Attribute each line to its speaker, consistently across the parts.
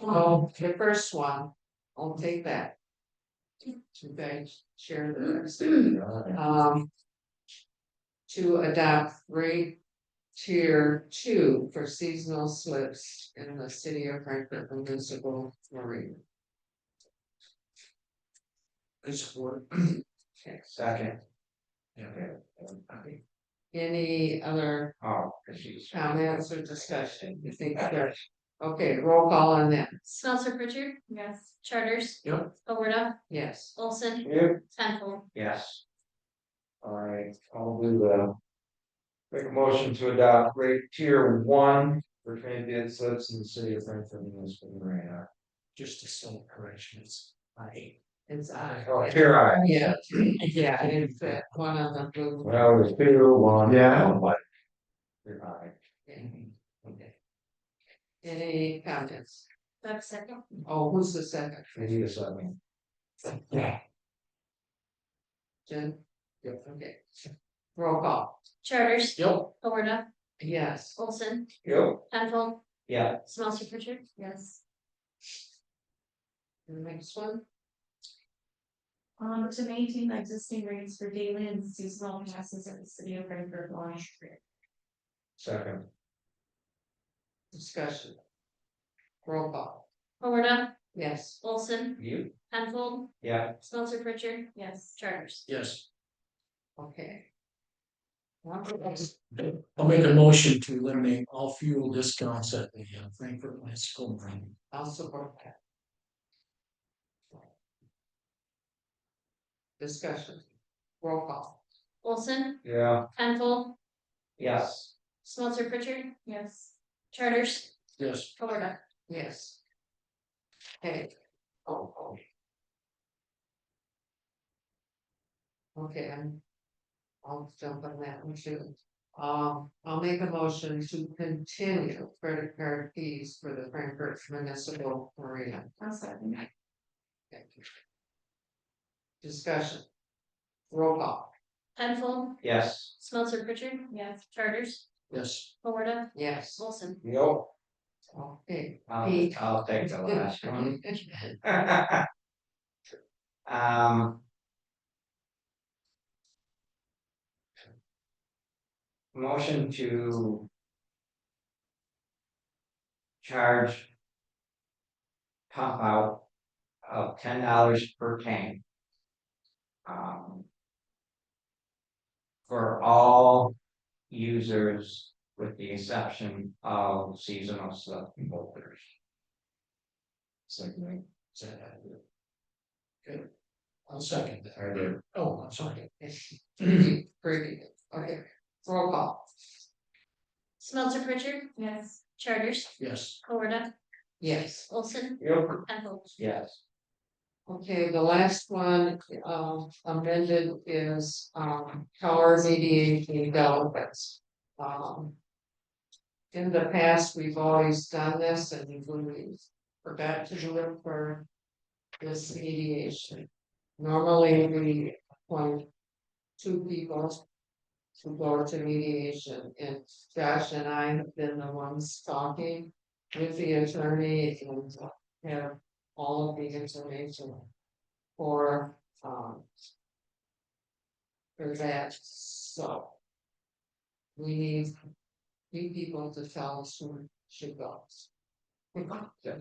Speaker 1: Oh, the first one, I'll take that. To guys share the rest. um. To adopt rate tier two for seasonal slips in the city of Frankfurt municipal marina.
Speaker 2: It's work.
Speaker 1: Okay.
Speaker 2: Second. Yeah. okay.
Speaker 1: Any other
Speaker 2: Oh, cause she's.
Speaker 1: comments or discussion? You think there- Okay, roll call on that,
Speaker 3: Smelter Pritchard. Yes. Charters.
Speaker 2: Yep.
Speaker 3: Alberta,
Speaker 1: yes.
Speaker 3: Olson,
Speaker 2: Yep.
Speaker 3: Penfold.
Speaker 2: Yes. Alright, I'll do the. Make a motion to adopt rate tier one for transient slips in the city of Frankfurt municipal marina. Just a simple correction, it's I.
Speaker 1: It's I.
Speaker 2: Oh, here I,
Speaker 1: Yeah, yeah, it's that one of the blue.
Speaker 2: well, it's two, one. Yeah. What? Here I.
Speaker 1: Okay. Any comments?
Speaker 3: Do I have a second?
Speaker 1: Oh, who's the second?
Speaker 2: I need a second. Yeah.
Speaker 1: Jen? Yep. Okay. Roll call,
Speaker 3: Charters.
Speaker 2: Yep.
Speaker 3: Alberta,
Speaker 1: yes.
Speaker 3: Olson,
Speaker 2: Yep.
Speaker 3: Penfold,
Speaker 2: Yeah.
Speaker 3: Smelter Pritchard. Yes.
Speaker 1: The next one?
Speaker 4: Um, to maintain the existing rates for daily and seasonal passes at the city of Frankfurt launch.
Speaker 2: Second.
Speaker 1: Discussion. Roll call,
Speaker 3: Alberta,
Speaker 1: yes,
Speaker 3: Olson,
Speaker 2: You?
Speaker 3: Penfold,
Speaker 2: Yeah.
Speaker 3: Smelter Pritchard.
Speaker 4: Yes.
Speaker 3: Charters.
Speaker 5: Yes,
Speaker 1: okay. Wonderful.
Speaker 5: I'll make a motion to eliminate all fuel discounts at the uh, Frankfurt Bicycle Marine.
Speaker 1: I'll support that. Discussion. Roll call,
Speaker 3: Olson,
Speaker 2: Yeah.
Speaker 3: Penfold,
Speaker 2: Yes.
Speaker 3: Smelter Pritchard.
Speaker 4: Yes.
Speaker 3: Charters.
Speaker 5: Yes,
Speaker 3: Alberta,
Speaker 1: yes. Okay. Oh, oh. Okay, I'm. I'll jump on that one too. Um, I'll make a motion to continue credit card fees for the Frankfurt Municipal Marina.
Speaker 4: I'm sorry.
Speaker 1: Thank you. Discussion. Roll call,
Speaker 3: Penfold,
Speaker 2: Yes.
Speaker 3: Smelter Pritchard.
Speaker 4: Yes.
Speaker 3: Charters.
Speaker 5: yes,
Speaker 3: Alberta,
Speaker 1: yes,
Speaker 3: Olson.
Speaker 2: Yo.
Speaker 1: okay.
Speaker 2: I'll,
Speaker 1: Eight.
Speaker 2: I'll take the last one. Um. Motion to. Charge. Pump out of ten dollars per tank. Um. For all users with the exception of seasonal stuff holders. Second.
Speaker 5: is that accurate? Okay, I'll second that. Oh, I'm sorry.
Speaker 1: Pretty, pretty, okay, roll call,
Speaker 3: Smelter Pritchard.
Speaker 4: Yes.
Speaker 3: Charters.
Speaker 5: Yes,
Speaker 3: Alberta,
Speaker 1: yes,
Speaker 3: Olson,
Speaker 2: Yep.
Speaker 3: Penfold.
Speaker 2: Yes.
Speaker 1: okay, the last one, um, amended is, um, power mediation developments. Um. In the past, we've always done this and we forgot to do it for this mediation. Normally, we appoint two people to go to mediation, and Josh and I have been the ones talking with the attorney and have all of the information for, um, for that, so we need three people to tell us who should go.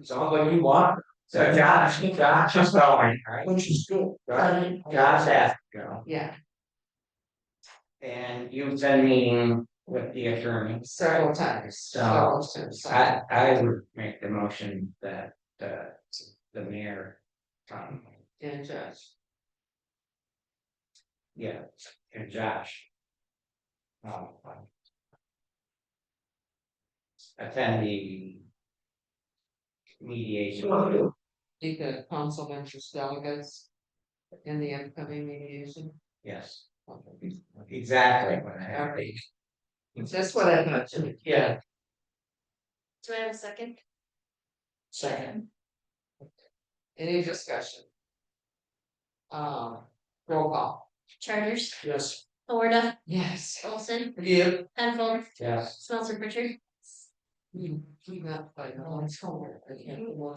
Speaker 2: Sounds like you want. So Josh, Josh is going, right?
Speaker 5: which is good.
Speaker 1: Uh,
Speaker 2: Josh Josh asked, to go.
Speaker 1: Um, Yeah,
Speaker 2: and you've been meeting with the attorney.
Speaker 1: several times,
Speaker 2: So,
Speaker 1: several times.
Speaker 2: I, I would make the motion that, uh, the mayor, um,
Speaker 1: And Josh,
Speaker 2: yeah, and Josh. Um. Attend the. Mediation,
Speaker 1: be the council members delegates in the upcoming mediation.
Speaker 2: yes,
Speaker 1: Okay.
Speaker 2: exactly what I have.
Speaker 1: That's what I thought too.
Speaker 2: Yeah,
Speaker 3: Do I have a second?
Speaker 5: Second,
Speaker 1: Any discussion? Um, roll call.
Speaker 3: Charters.
Speaker 5: yes,
Speaker 3: Alberta,
Speaker 1: Yes.
Speaker 3: Olson,
Speaker 1: Yeah.
Speaker 3: Penfold,
Speaker 2: Yes.
Speaker 3: Smelter Pritchard.
Speaker 1: You, you not by the last one, oh, I can't.